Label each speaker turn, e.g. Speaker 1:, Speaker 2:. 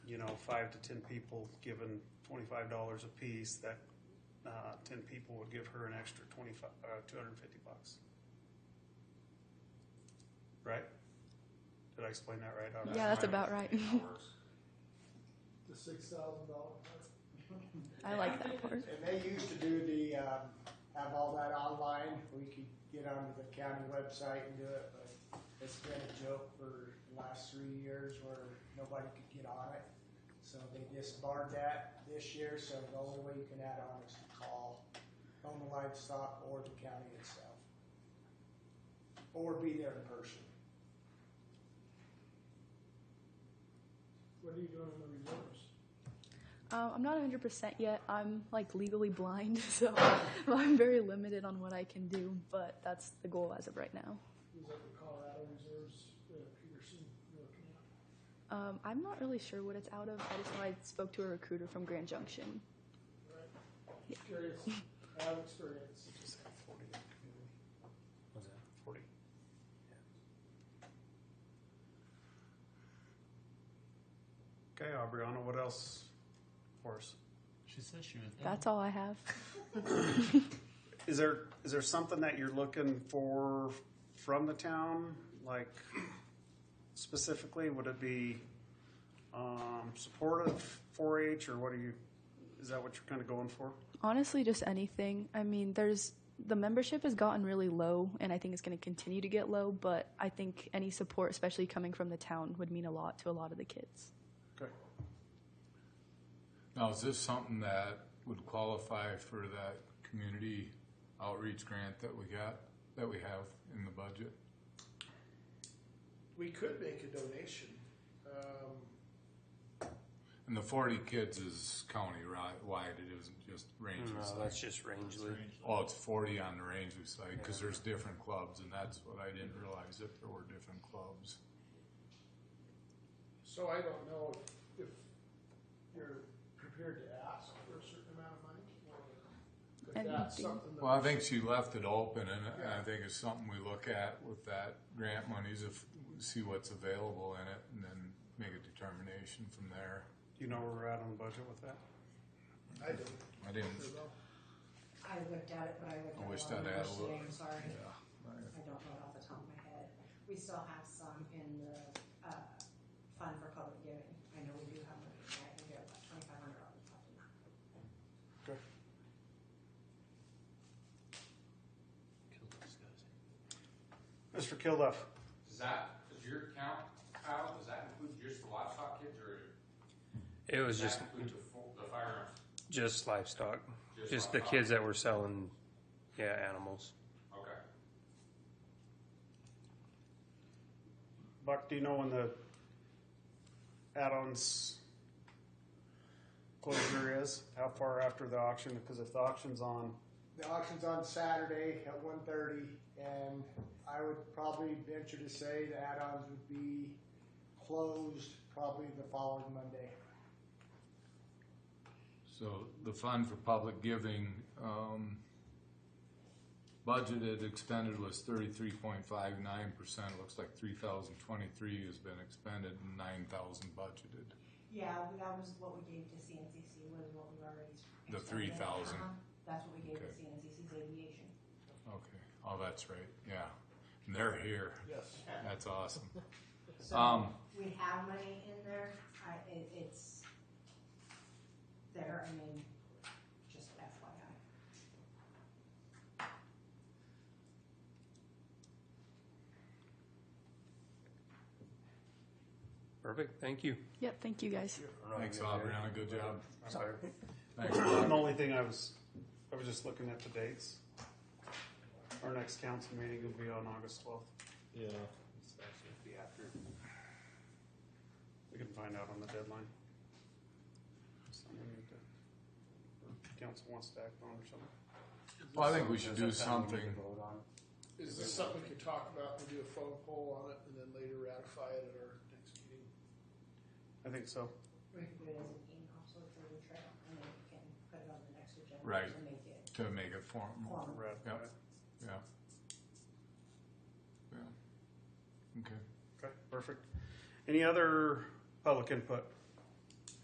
Speaker 1: know, five to ten people given twenty-five dollars apiece, that, uh, ten people would give her an extra twenty-five, uh, two hundred and fifty bucks. Right? Did I explain that right? How-
Speaker 2: Yeah, that's about right.
Speaker 3: the six thousand dollar part.
Speaker 2: I like that part.
Speaker 4: And they used to do the, um, have all that online, we could get onto the county website and do it, but it's been a joke for the last three years where nobody could get on it. So they disbarred that this year, so the only way you can add on is to call home and livestock or the county itself. Or be there in person.
Speaker 3: What are you doing in the reserves?
Speaker 2: Uh, I'm not 100% yet. I'm like legally blind, so I'm very limited on what I can do, but that's the goal as of right now.
Speaker 3: Is that the Colorado reserves, uh, Peterson, you're looking at?
Speaker 2: Um, I'm not really sure what it's out of. I just know I spoke to a recruiter from Grand Junction.
Speaker 3: Right. Curious, I have experience.
Speaker 1: Just have forty in the community,
Speaker 5: What's that?
Speaker 1: forty. Okay, Aubriana, what else for us?
Speaker 5: She says she was.
Speaker 2: That's all I have.
Speaker 1: Is there, is there something that you're looking for from the town? Like specifically, would it be, um, supportive four H or what are you, is that what you're kind of going for?
Speaker 2: Honestly, just anything. I mean, there's the membership has gotten really low, and I think it's going to continue to get low, but I think any support, especially coming from the town, would mean a lot to a lot of the kids.
Speaker 1: Okay.
Speaker 6: Now, is this something that would qualify for that community outreach grant that we got, that we have in the budget?
Speaker 3: We could make a donation, um,
Speaker 6: And the forty kids is county-wide, it isn't just Range
Speaker 5: No,
Speaker 6: Recycling?
Speaker 5: that's just Rangeley.
Speaker 6: Oh, it's forty on the Range Recycling, because there's different clubs, and that's what I didn't realize, that there were different clubs.
Speaker 3: so I don't know if you're prepared to ask for a certain amount of money, or if
Speaker 2: I
Speaker 3: that's
Speaker 2: think-
Speaker 3: something that.
Speaker 6: Well, I think she left it open, and and I think it's something we look at with that grant monies, if, see what's available in it, and then make a determination from there.
Speaker 1: Do you know where we're at on the budget with that?
Speaker 3: I do.
Speaker 6: I didn't
Speaker 7: I looked at it, but I looked at
Speaker 6: I
Speaker 7: a
Speaker 6: wish
Speaker 7: lot of
Speaker 6: that had a
Speaker 7: numbers today,
Speaker 6: little-
Speaker 7: I'm sorry.
Speaker 6: Yeah,
Speaker 7: I don't know it off the top of my head. We still have some in the, uh, fund for public giving. I know we do have money, in there. I think we have about twenty-five hundred dollars left in that.
Speaker 1: Okay.
Speaker 5: Kill those guys.
Speaker 1: Mr. Kilduff,
Speaker 8: Does that, does your count, Kyle, does that include just the livestock kids or
Speaker 5: It was
Speaker 8: does
Speaker 5: just,
Speaker 8: that include the fo- the firearms?
Speaker 5: just livestock,
Speaker 8: Just
Speaker 5: just the
Speaker 8: livestock.
Speaker 5: kids that were selling, yeah, animals.
Speaker 8: Okay.
Speaker 1: Buck, do you know when the add-ons closure is? How far after the auction? Because if the auction's on,
Speaker 4: The auction's on Saturday at one thirty, and I would probably venture to say the add-ons would be closed probably the following Monday.
Speaker 6: So the fund for public giving, um, budgeted expended was thirty-three point five nine percent. Looks like three thousand twenty-three has been expended and nine thousand budgeted.
Speaker 7: Yeah, we- that was what we gave to CNCC, was what we already.
Speaker 6: The
Speaker 7: expended.
Speaker 6: 3,000.
Speaker 7: Uh-huh. That's what we gave to
Speaker 6: Okay.
Speaker 7: CNCC's aviation.
Speaker 6: Okay, oh, that's right, yeah. And they're here.
Speaker 3: Yes.
Speaker 6: That's awesome.
Speaker 7: So
Speaker 6: Um,
Speaker 7: we have money in there. I, it, it's there, I mean, just FYI.
Speaker 5: Perfect, thank you.
Speaker 2: Yep, thank you guys.
Speaker 6: thanks, Aubriana, good job.
Speaker 1: Sorry.
Speaker 6: Thanks,
Speaker 1: the
Speaker 6: Bob.
Speaker 1: only thing I was, I was just looking at the dates. Our next council meeting will be on August twelfth.
Speaker 5: Yeah. It's actually be after.
Speaker 1: We can find out on the deadline. Something that the council wants to act on or something.
Speaker 6: Well, I think we should do
Speaker 5: Does that sound we
Speaker 6: something.
Speaker 5: need to vote on?
Speaker 3: Is this something we could talk about, and do a phone poll on it, and then later ratify it at our next meeting?
Speaker 1: I think so.
Speaker 7: We can do it as an email, so it's on the trail, and then we can put it on the next agenda.
Speaker 6: Right.
Speaker 7: To make it
Speaker 6: to make it formal.
Speaker 7: formal.
Speaker 1: Brad.
Speaker 6: Yeah. Yeah. Yeah. Okay.
Speaker 1: Okay, perfect. Any other public input?